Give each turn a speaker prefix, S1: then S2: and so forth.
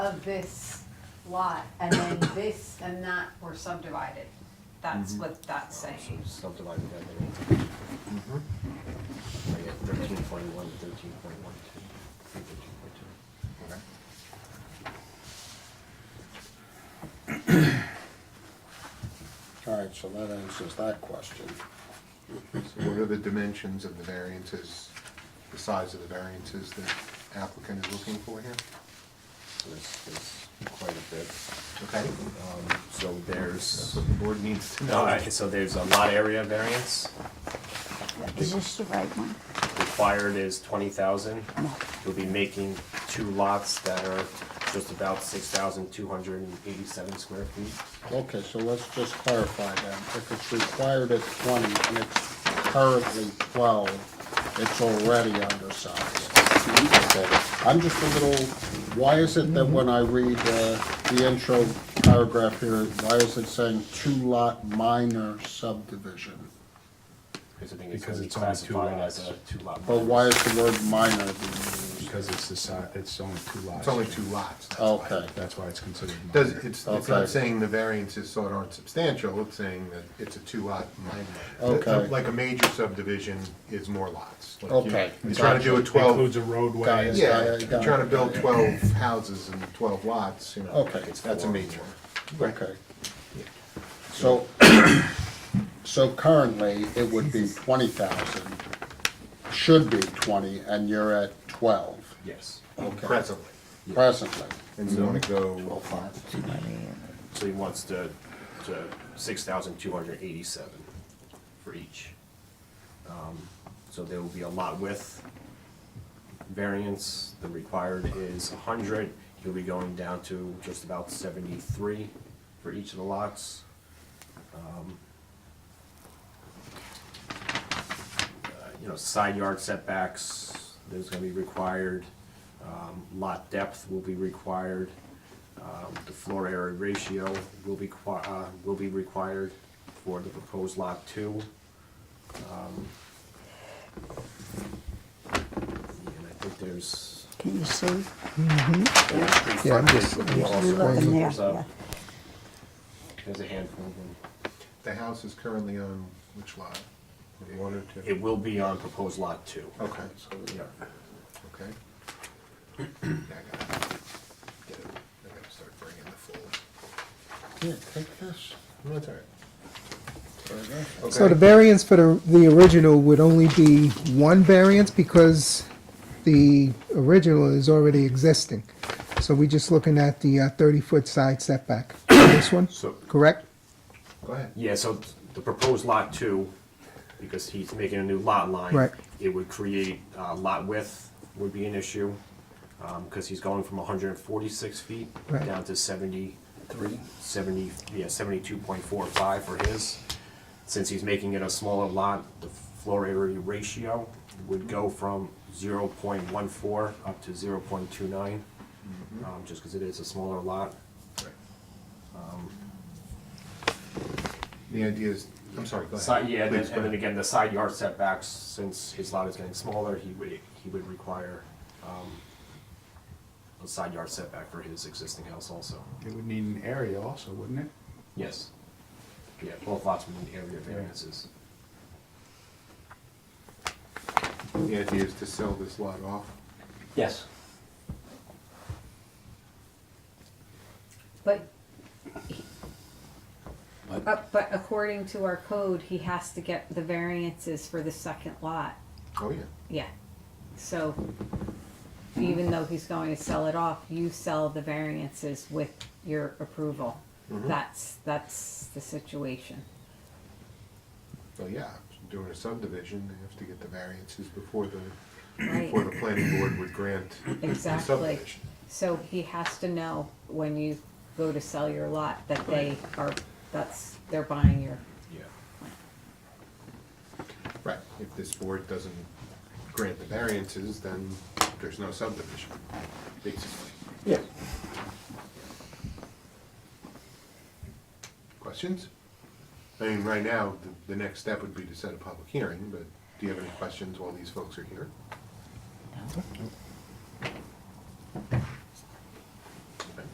S1: of this lot, and then this and that were subdivided. That's what that's
S2: So
S1: saying.
S2: subdivided that little.
S3: Mm-hmm.
S2: I got thirteen point one, thirteen point one two, thirteen point two. Okay.
S3: All right, so that answers that question.
S4: So what are the dimensions of the variances, the size of the variances the applicant is looking for here?
S2: So There's, there's quite a bit.
S4: Okay,
S2: Um, so
S4: that's
S2: there's,
S4: what the board needs to know.
S2: all right, so there's a lot area variance.
S5: Is this the right one?
S2: Required is twenty thousand. You'll be making two lots that are just about six thousand two hundred and eighty-seven square feet.
S3: Okay, so let's just clarify then. If it's required at twenty and it's currently twelve, it's already undersized. Okay. I'm just a little, why is it that when I read uh, the intro paragraph here, why is it saying two lot minor subdivision?
S2: Because I think it's
S6: Because
S2: gonna be
S6: it's only two
S2: classified as a
S6: lots. Oh.
S2: two lot.
S3: But why is the word minor being used?
S6: Because it's the si, it's only two lots.
S4: It's only two lots. that's why.
S3: Okay,
S6: That's why it's considered
S4: Does,
S6: minor.
S4: it's, it's
S3: Oh. Okay.
S4: not saying the variances sort of aren't substantial, it's saying that it's a two lot minor.
S3: Okay.
S4: Like a major subdivision is more lots. Like you-
S3: Okay,
S4: You're trying to do a
S6: Includes
S4: twelve,
S6: a
S3: Got it.
S6: roadway.
S4: yeah,
S3: Yeah, yeah,
S4: you're
S3: got it.
S4: trying to build twelve houses and twelve lots, you know.
S3: Okay.
S4: That's a major.
S3: okay. So, so currently, it would be twenty thousand, should be twenty, and you're at twelve
S2: Yes.
S4: Presently.
S3: presently.
S4: And you wanna go,
S2: So he wants to, to six thousand two hundred eighty-seven for each. Um, So there will be a lot width variance, the required is hundred, he'll be going down to just about seventy-three for each of the lots. Um, uh, You know, side yard setbacks, there's gonna be required, um, lot depth will be required. Um, The floor area ratio will be, qui- uh, will be required for the proposed lot two. Um, And I think there's,
S5: Can you see?
S2: there's three
S6: Yeah, I'm
S2: front-
S6: just-
S5: You look in there,
S2: there's
S5: yeah.
S2: a, there's a handful of them.
S4: the house is currently on which lot? One or two?
S2: It will be on proposed lot two.
S4: Okay, so,
S2: Yeah.
S4: okay. Yeah, I gotta get it. I gotta start bringing the full.
S3: Yeah, take this.
S4: No, That's all right.
S7: So the variance for the, the original would only be one variance because the original is already existing. So we're just looking at the uh, thirty-foot side setback for this one,
S2: So,
S7: correct?
S4: Go ahead.
S2: Yeah, so the proposed lot two, because he's making a new lot line.
S7: Right.
S2: It would create, uh, lot width would be an issue, um, cause he's going from hundred and forty-six feet
S7: Right.
S2: down to seventy-three, seventy, yeah, seventy-two point four five for his. Since he's making it a smaller lot, the floor area ratio would go from zero point one four up to zero point two nine, um, just cause it is a smaller lot.
S4: The idea is, I'm sorry, go
S2: Side,
S4: ahead.
S2: yeah, and then,
S4: Please, go
S2: and then
S4: ahead.
S2: again, the side yard setbacks, since his lot is getting smaller, he would, he would require, um, a side yard setback for his existing house also.
S6: It would need an area also, wouldn't it?
S2: Yes. Yeah, both lots would need area variances.
S4: The idea is to sell this lot off.
S2: Yes.
S1: But, he- but but according to our code, he has to get the variances for the second lot.
S4: Oh, yeah.
S1: Yeah, so even though he's going to sell it off, you sell the variances with your approval. That's, that's the situation.
S4: Well, yeah, doing a subdivision, they have to get the variances before the,
S1: Right,
S4: before the planning board would grant the
S1: exactly.
S4: subdivision.
S1: So he has to know when you go to sell your lot that they are, that's, they're buying your,
S2: Yeah.
S4: Right, if this board doesn't grant the variances, then there's no subdivision, basically.
S3: Yeah.
S4: Questions? I mean, right now, the, the next step would be to set a public hearing, but do you have any questions while these folks are here?